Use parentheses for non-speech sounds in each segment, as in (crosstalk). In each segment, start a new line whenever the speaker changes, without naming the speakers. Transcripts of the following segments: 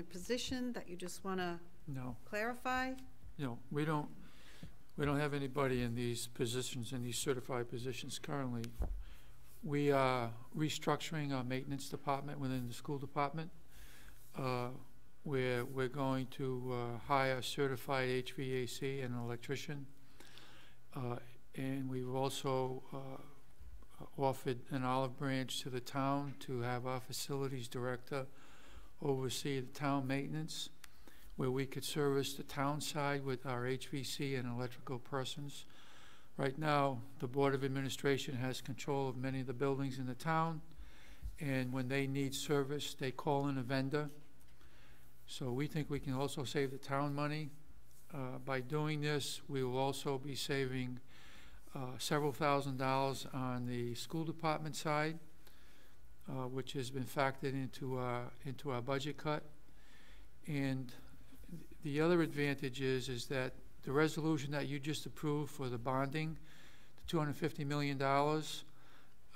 your position that you just want to
No,
clarify?
no, we don't, we don't have anybody in these positions, in these certified positions currently. We are restructuring our maintenance department within the school department. Uh, We're, we're going to uh, hire a certified HVAC and an electrician. Uh, And we've also uh, offered an olive branch to the town to have our facilities director oversee the town maintenance where we could service the town side with our HVC and electrical persons. Right now, the Board of Administration has control of many of the buildings in the town, and when they need service, they call in a vendor. So we think we can also save the town money. Uh, By doing this, we will also be saving uh, several thousand dollars on the school department side, uh, which has been factored into our, into our budget cut. And the other advantage is, is that the resolution that you just approved for the bonding, the two hundred and fifty million dollars,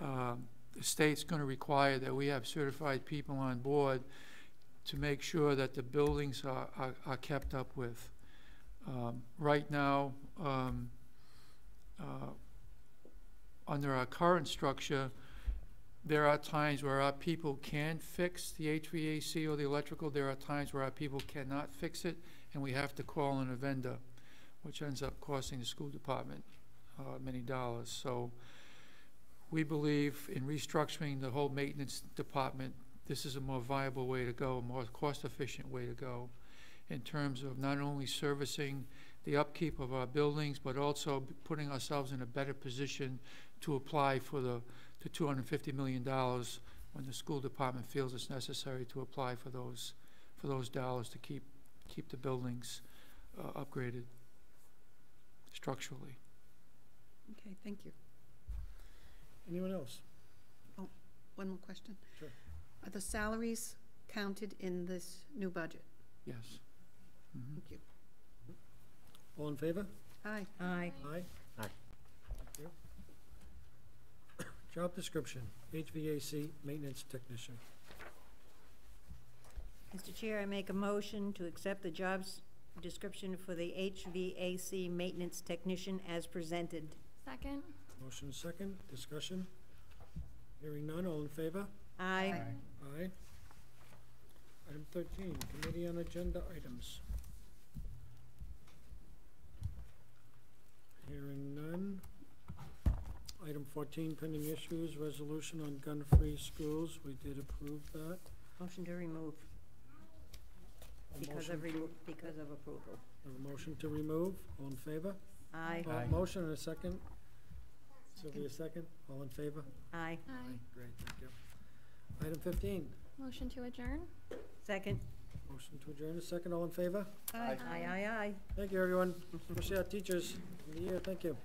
um, the state's gonna require that we have certified people on board to make sure that the buildings are, are, are kept up with. Um, right now, um, uh, under our current structure, there are times where our people can fix the HVAC or the electrical, there are times where our people cannot fix it, and we have to call in a vendor, which ends up costing the school department uh, many dollars. So we believe in restructuring the whole maintenance department, this is a more viable way to go, a more cost-efficient way to go in terms of not only servicing the upkeep of our buildings, but also putting ourselves in a better position to apply for the to two hundred and fifty million dollars when the school department feels it's necessary to apply for those, for those dollars to keep, keep the buildings uh, upgraded structurally.
Okay, thank you.
Anyone else?
One more question.
Sure.
Are the salaries counted in this new budget?
Yes. Mhm.
Thank you.
All in favor?
Aye.
Aye.
Aye?
Aye.
Thank you. (coughs) Job description, HVAC maintenance technician.
Mr. Chair, I make a motion to accept the jobs description for the HVAC maintenance technician as presented.
Second?
Motion is second, discussion. Hearing none, all in favor?
Aye.
Aye. Item thirteen, committee on agenda items. Hearing none. Item fourteen, pending issues, resolution on gun-free schools, we did approve that.
Motion to remove
A
because
motion
of, remo- because of approval.
I have a motion to remove, all in favor?
Aye.
Uh,
Aye.
Motion and a second. Sylvia, second, all in favor?
Aye.
Aye.
Great, thank you. Item fifteen,
Motion to adjourn?
Second.
motion to adjourn, a second, all in favor?
Aye.
Aye, aye, aye.
Thank you, everyone, especially our teachers, in the year, thank you.